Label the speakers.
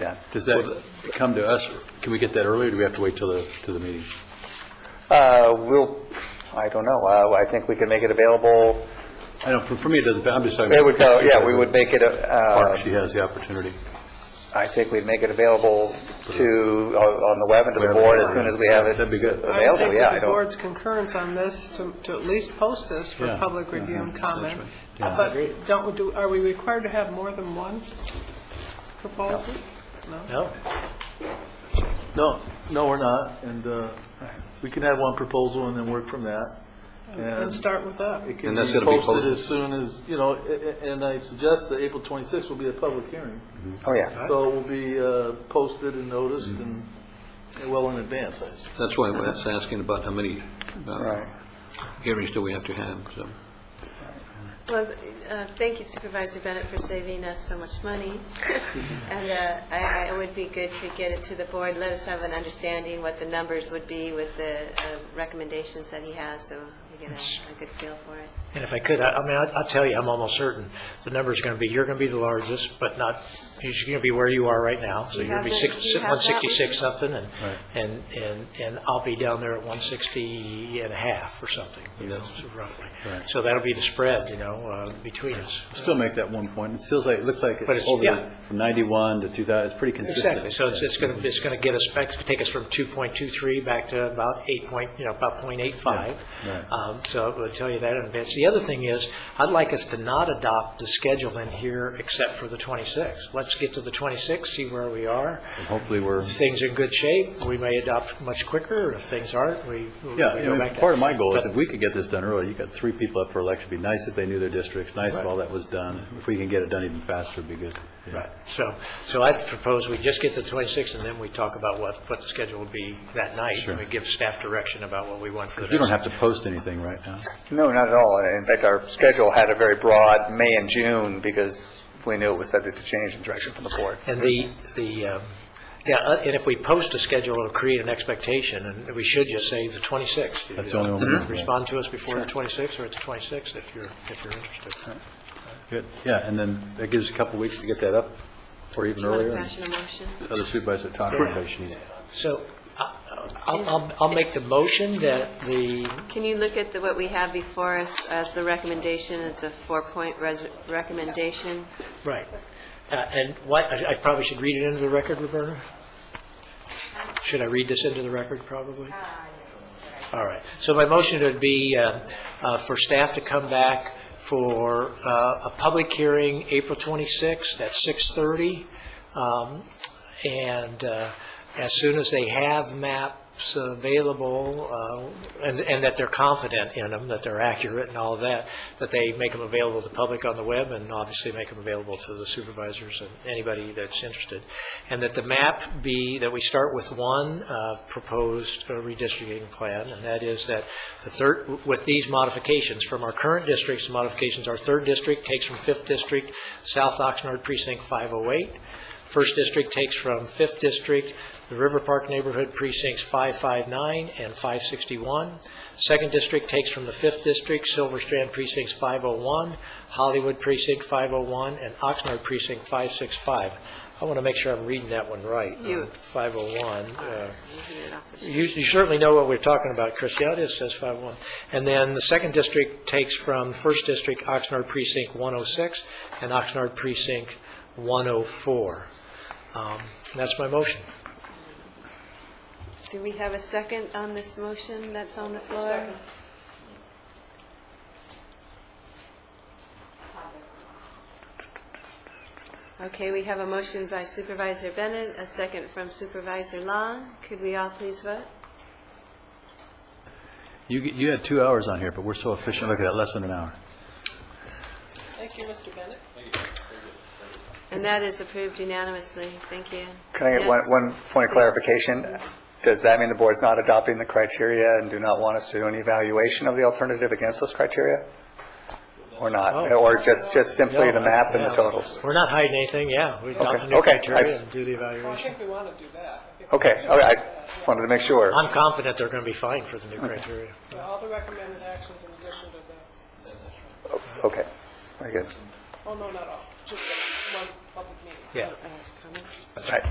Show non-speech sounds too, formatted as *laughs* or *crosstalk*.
Speaker 1: Yeah, does that come to us, can we get that earlier, or do we have to wait till the, till the meeting?
Speaker 2: Uh, we'll, I don't know, uh, I think we can make it available,
Speaker 1: I don't, for- for me, it doesn't, I'm just talking.
Speaker 2: it would go, *laughs* yeah, we would make it,
Speaker 1: Park,
Speaker 2: uh,
Speaker 1: she has the opportunity.
Speaker 2: I think we'd make it available to, on on the web and to the board as soon as we have it.
Speaker 1: That'd be good.
Speaker 2: Uh,
Speaker 3: I would
Speaker 2: Available,
Speaker 3: think
Speaker 2: yeah,
Speaker 3: with
Speaker 2: I
Speaker 3: the
Speaker 2: don't-
Speaker 3: board's concurrence on this, to, to at least post this for
Speaker 1: Yeah.
Speaker 3: public review and comment. Uh,
Speaker 1: right. Yeah.
Speaker 3: But don't, we do, are we required to have more than one proposal? No?
Speaker 4: No. No, no, we're not, and uh, we can have one proposal and then work from that.
Speaker 3: And start with that.
Speaker 4: It can be
Speaker 1: And that's gonna be
Speaker 4: posted
Speaker 1: posted.
Speaker 4: as soon as, you know, a- a- and I suggest that April 26th will be a public hearing.
Speaker 2: Oh, yeah,
Speaker 4: So it will be uh, posted and noticed and and well in advance, I suppose.
Speaker 5: That's why I was asking about how many uh,
Speaker 2: right.
Speaker 5: hearings do we have to have, so.
Speaker 6: Well, uh, thank you Supervisor Bennett for saving us so much money. And uh, I, I- it would be good to get it to the board, let us have an understanding what the numbers would be with the uh, recommendations that he has, so we get a a good feel for it.
Speaker 7: And if I could, I I mean, I'll I'll tell you, I'm almost certain, the number's going to be, you're going to be the largest, but not, you're going to be where you are right now, so you're going to be
Speaker 6: have that-
Speaker 7: six-
Speaker 6: you have that
Speaker 7: 166 something, and,
Speaker 1: Right.
Speaker 7: and, and and I'll be down there at 160 and a half or something, you know, so roughly.
Speaker 1: Right.
Speaker 7: So that'll be the spread, you know, uh, between us.
Speaker 1: Still make that one point, it feels like, it looks like
Speaker 7: But
Speaker 1: it's
Speaker 7: it's-
Speaker 1: over
Speaker 7: yeah.
Speaker 1: from 91 to 2000, it's pretty consistent.
Speaker 7: Exactly, so it's, it's going to, it's going to get us back, take us from 2.23 back to about 8 point, you know, about .85.
Speaker 1: Yeah, right.
Speaker 7: Um, So I'll tell you that in advance. The other thing is, I'd like us to not adopt the schedule in here except for the 26th. Let's get to the 26th, see where we are.
Speaker 1: And Hopefully, we're,
Speaker 7: If things are in good shape, we may adopt much quicker. If things aren't, we we
Speaker 1: yeah,
Speaker 7: go
Speaker 1: I mean,
Speaker 7: back to...
Speaker 1: part of my goal is
Speaker 7: But-
Speaker 1: if we could get this done early, you got three people up for election, it'd be nice if they knew their districts, nice if all that was done. If we can get it done even faster, it'd be good. Yeah.
Speaker 7: Right, so, so I propose we just get to 26, and then we talk about what, what the schedule would be that night.
Speaker 1: Sure.
Speaker 7: And we give staff direction about what we want for the next...
Speaker 1: We don't have to post anything right now.
Speaker 2: No, not at all, in fact, our schedule had a very broad May and June, because we knew it was subject to change in direction from the board.
Speaker 7: And the, the, um, yeah, uh, and if we post a schedule, it'll create an expectation, and we should just say the 26th.
Speaker 1: That's the only one we can do.
Speaker 7: Respond to us before the 26th or at the 26th if you're, if you're interested.
Speaker 1: Good, yeah, and then that gives us a couple weeks to get that up, or even
Speaker 6: Do you want to
Speaker 1: earlier.
Speaker 6: fashion a motion?
Speaker 1: Other supervisors talk about it.
Speaker 7: So I- I'll, I'll, I'll make the motion that the,
Speaker 6: Can you look at the- what we have before us as the recommendation? It's a four-point res- recommendation.
Speaker 7: right, Uh, and what, I I probably should read it into the record, Roberta? Should I read this into the record, probably? All right. So my motion would be uh, uh, for staff to come back for uh, a public hearing April 26th at 6:30. um, And uh, as soon as they have maps available, uh, and and that they're confident in them, that they're accurate and all of that, that they make them available to the public on the web and obviously make them available to the supervisors and anybody that's interested. And that the map be, that we start with one uh, proposed uh, redistricting plan, and that is that the third, with these modifications, from our current districts, modifications, our third district takes from fifth district, South Oxnard precinct 508. First district takes from fifth district, the River Park neighborhood precincts 559 and 561. Second district takes from the fifth district, Silver Strand precincts 501, Hollywood precinct 501, and Oxnard precinct 565. I want to make sure I'm reading that one right.
Speaker 6: You-
Speaker 7: uh, 501. uh,
Speaker 6: You can do it off the-
Speaker 7: you you certainly know what we're talking about, Chris. Yeah, it is, says 5-1. And then the second district takes from first district, Oxnard precinct 106, and Oxnard precinct 104. Um, That's my motion.
Speaker 6: Do we have a second on this motion that's on the floor? Okay, we have a motion by Supervisor Bennett, a second from Supervisor Long. Could we all please vote?
Speaker 1: You, you had two hours on here, but we're so efficient, look at that, less than an hour.
Speaker 3: Thank you, Mr. Bennett.
Speaker 6: And that is approved unanimously. Thank you.
Speaker 2: Can I get one,
Speaker 6: Yes.
Speaker 2: one point of clarification? Does that mean the board's not adopting the criteria and do not want us to do an evaluation of the alternative against those criteria? Or not?
Speaker 7: Oh.
Speaker 2: Or just, just simply the
Speaker 7: Yeah,
Speaker 2: map and the
Speaker 7: yeah.
Speaker 2: totals?
Speaker 7: We're not hiding anything, yeah. We adopt the new
Speaker 2: okay.
Speaker 7: criteria
Speaker 2: I-
Speaker 7: and do the
Speaker 3: Well, I
Speaker 7: evaluation.
Speaker 3: think we want to do that. I think
Speaker 2: Okay, all right, I wanted to make sure.
Speaker 7: I'm confident they're going to be fine for the new criteria.
Speaker 3: All the recommended actions in addition to the,
Speaker 2: Okay, very good.
Speaker 3: oh, no, not all, just the one public meeting.
Speaker 7: Yeah.
Speaker 6: Uh, Comments?
Speaker 2: All right.